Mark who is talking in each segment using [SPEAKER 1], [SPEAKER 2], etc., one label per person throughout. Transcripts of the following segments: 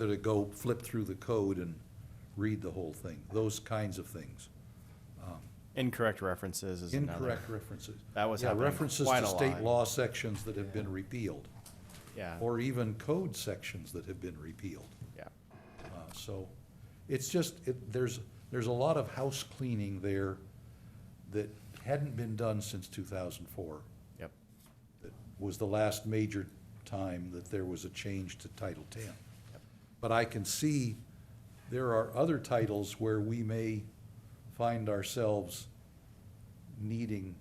[SPEAKER 1] that to go flip through the code and read the whole thing, those kinds of things.
[SPEAKER 2] Incorrect references is another.
[SPEAKER 1] Incorrect references.
[SPEAKER 2] That was
[SPEAKER 1] Yeah,
[SPEAKER 2] happening quite a
[SPEAKER 1] References to
[SPEAKER 2] lot.
[SPEAKER 1] state law sections that have been repealed,
[SPEAKER 2] Yeah,
[SPEAKER 1] or even code sections that have been repealed.
[SPEAKER 2] yeah.
[SPEAKER 1] Uh, So it's just, it, there's, there's a lot of house cleaning there that hadn't been done since two thousand four.
[SPEAKER 2] Yep.
[SPEAKER 1] That was the last major time that there was a change to Title Ten. But I can see there are other titles where we may find ourselves needing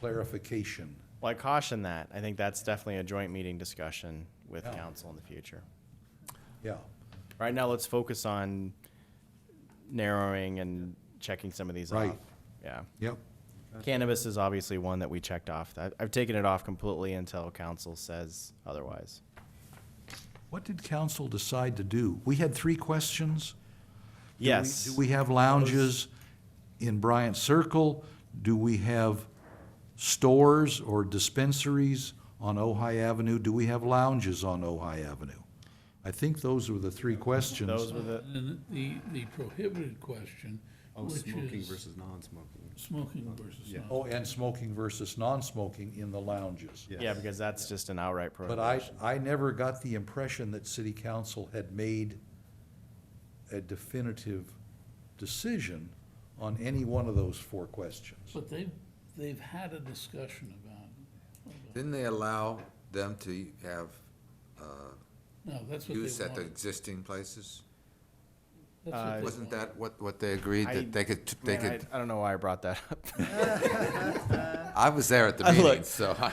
[SPEAKER 1] clarification.
[SPEAKER 2] Well, I caution that. I think that's definitely a joint meeting discussion with
[SPEAKER 1] Yeah.
[SPEAKER 2] council in the future.
[SPEAKER 1] Yeah,
[SPEAKER 2] Right now, let's focus on narrowing and checking some of these
[SPEAKER 1] Right.
[SPEAKER 2] off. Yeah.
[SPEAKER 1] yep.
[SPEAKER 2] Cannabis is obviously one that we checked off. I- I've taken it off completely until council says otherwise.
[SPEAKER 1] What did council decide to do? We had three questions? Do we-
[SPEAKER 2] Yes.
[SPEAKER 1] Do we have lounges in Bryant Circle? Do we have stores or dispensaries on Ojai Avenue? Do we have lounges on Ojai Avenue? I think those were the three questions.
[SPEAKER 2] Those were the,
[SPEAKER 3] And the, the prohibited question,
[SPEAKER 4] Oh,
[SPEAKER 3] which
[SPEAKER 4] smoking
[SPEAKER 3] is
[SPEAKER 4] versus non-smoking.
[SPEAKER 3] smoking versus
[SPEAKER 4] Yeah.
[SPEAKER 3] not.
[SPEAKER 1] Oh, and smoking versus non-smoking in the lounges.
[SPEAKER 2] yeah, because that's just an outright
[SPEAKER 1] But I,
[SPEAKER 2] prohibition.
[SPEAKER 1] I never got the impression that city council had made a definitive decision on any one of those four questions.
[SPEAKER 3] But they've, they've had a discussion about, it.
[SPEAKER 5] Didn't they allow them to have uh,
[SPEAKER 3] no, that's what
[SPEAKER 5] use
[SPEAKER 3] they
[SPEAKER 5] at the
[SPEAKER 3] wanted.
[SPEAKER 5] existing places?
[SPEAKER 3] That's
[SPEAKER 4] Uh,
[SPEAKER 3] what they
[SPEAKER 5] Wasn't
[SPEAKER 3] wanted.
[SPEAKER 5] that what, what they agreed,
[SPEAKER 2] I-
[SPEAKER 5] that they could, t- they
[SPEAKER 2] Man, I
[SPEAKER 5] could,
[SPEAKER 2] I don't know why I brought that up.
[SPEAKER 5] I was there at the
[SPEAKER 2] I
[SPEAKER 5] meeting,
[SPEAKER 2] looked.
[SPEAKER 5] so. I-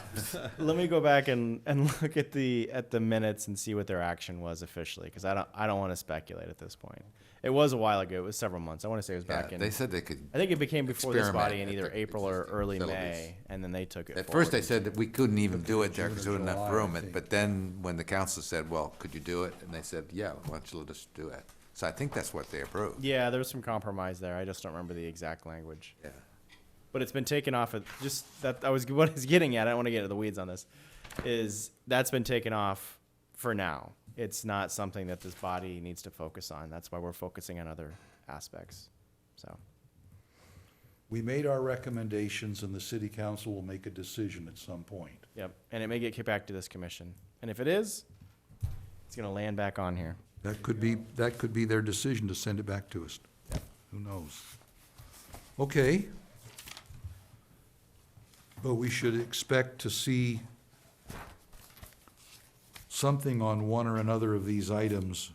[SPEAKER 2] Let me go back and, and look at the at the minutes and see what their action was officially, because I don't I don't want to speculate at this point. It was a while ago. It was several months. I want to say it was back
[SPEAKER 5] yeah,
[SPEAKER 2] in.
[SPEAKER 5] They said they could,
[SPEAKER 2] I think it became before this
[SPEAKER 5] experiment
[SPEAKER 2] body in
[SPEAKER 5] at
[SPEAKER 2] either
[SPEAKER 5] the
[SPEAKER 2] April or
[SPEAKER 5] existing
[SPEAKER 2] early
[SPEAKER 5] facilities.
[SPEAKER 2] May, and then they took it.
[SPEAKER 5] at first they
[SPEAKER 2] forward.
[SPEAKER 5] said that we couldn't even do it there
[SPEAKER 1] June
[SPEAKER 5] because
[SPEAKER 1] or
[SPEAKER 5] there wasn't
[SPEAKER 1] July,
[SPEAKER 5] enough
[SPEAKER 1] I
[SPEAKER 5] room.
[SPEAKER 1] think.
[SPEAKER 5] But then when the council said, well, could you do it? And they said, yeah, why don't you let us do it? So I think that's what they approved.
[SPEAKER 2] Yeah, there was some compromise there. I just don't remember the exact language.
[SPEAKER 5] Yeah.
[SPEAKER 2] but it's been taken off of just that I was what I was getting at. I don't want to get into the weeds on this. Is that's been taken off for now. It's not something that this body needs to focus on. That's why we're focusing on other aspects. So
[SPEAKER 1] We made our recommendations and the city council will make a decision at some point.
[SPEAKER 2] yep, and it may get kicked back to this commission. And if it is, it's gonna land back on here.
[SPEAKER 1] That could be, that could be their decision to send it back to us. Who knows? Okay. But we should expect to see something on one or another of these items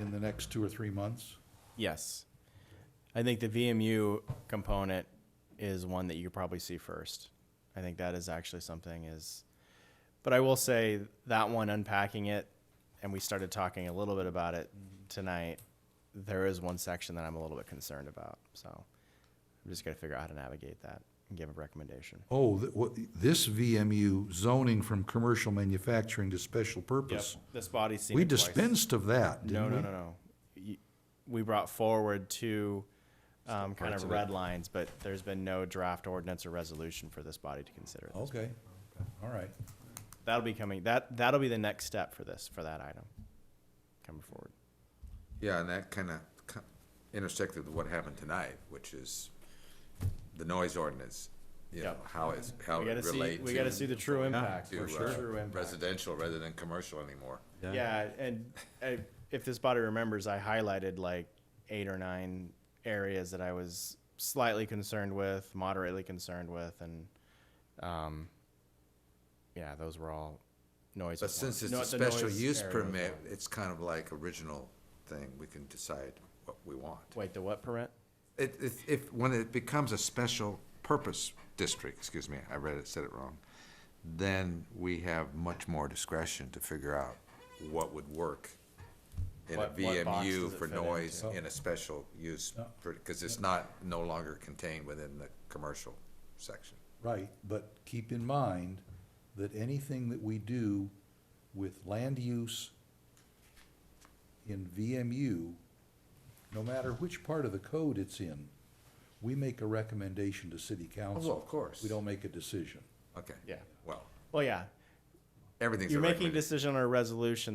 [SPEAKER 1] in the next two or three months.
[SPEAKER 2] Yes, I think the VMU component is one that you probably see first. I think that is actually something is. But I will say that one unpacking it, and we started talking a little bit about it tonight. There is one section that I'm a little bit concerned about, so I'm just gonna figure out how to navigate that and give a recommendation.
[SPEAKER 1] Oh, th- what, this VMU zoning from commercial manufacturing to special purpose.
[SPEAKER 2] This body's seen
[SPEAKER 1] We dispensed of that,
[SPEAKER 2] No,
[SPEAKER 1] didn't we?
[SPEAKER 2] no, no, no. You- We brought forward two um, kind of red lines, but there's been no draft ordinance or resolution for this body to consider.
[SPEAKER 1] Okay, all right.
[SPEAKER 2] That'll be coming, that, that'll be the next step for this, for that item coming forward.
[SPEAKER 5] Yeah, and that kind of intersected with what happened tonight, which is the noise ordinance, you know,
[SPEAKER 2] Yep.
[SPEAKER 5] how it's, how
[SPEAKER 2] We
[SPEAKER 5] it
[SPEAKER 2] gotta see,
[SPEAKER 5] relates.
[SPEAKER 2] we gotta see the true impact,
[SPEAKER 5] to
[SPEAKER 2] for sure.
[SPEAKER 5] uh,
[SPEAKER 2] True impact.
[SPEAKER 5] residential rather than commercial anymore.
[SPEAKER 2] Yeah, and I, if this body remembers, I highlighted like eight or nine areas that I was slightly concerned with, moderately concerned with, and um, yeah, those were all noise.
[SPEAKER 5] But since it's
[SPEAKER 2] no-
[SPEAKER 5] a
[SPEAKER 2] the
[SPEAKER 5] special
[SPEAKER 2] noise
[SPEAKER 5] use
[SPEAKER 2] area was
[SPEAKER 5] permit,
[SPEAKER 2] one.
[SPEAKER 5] it's kind of like original thing, we can decide what we want.
[SPEAKER 2] Wait, the what permit?
[SPEAKER 5] It, if, if, when it becomes a special purpose district, excuse me, I read it, said it wrong, then we have much more discretion to figure out what would work in a
[SPEAKER 2] What- what box does
[SPEAKER 5] VMU
[SPEAKER 2] it
[SPEAKER 5] for
[SPEAKER 2] fit
[SPEAKER 5] noise
[SPEAKER 1] into?
[SPEAKER 5] in a special use, because it's not, no longer contained within the commercial section.
[SPEAKER 1] Right, but keep in mind that anything that we do with land use in VMU, no matter which part of the code it's in, we make a recommendation to city council.
[SPEAKER 2] Oh,
[SPEAKER 5] of course.
[SPEAKER 1] We don't make a decision.
[SPEAKER 5] Okay.
[SPEAKER 2] Yeah.
[SPEAKER 5] Well,
[SPEAKER 2] Well, yeah,
[SPEAKER 5] everything's a
[SPEAKER 2] you're making a
[SPEAKER 5] recommendation.
[SPEAKER 2] decision on a resolution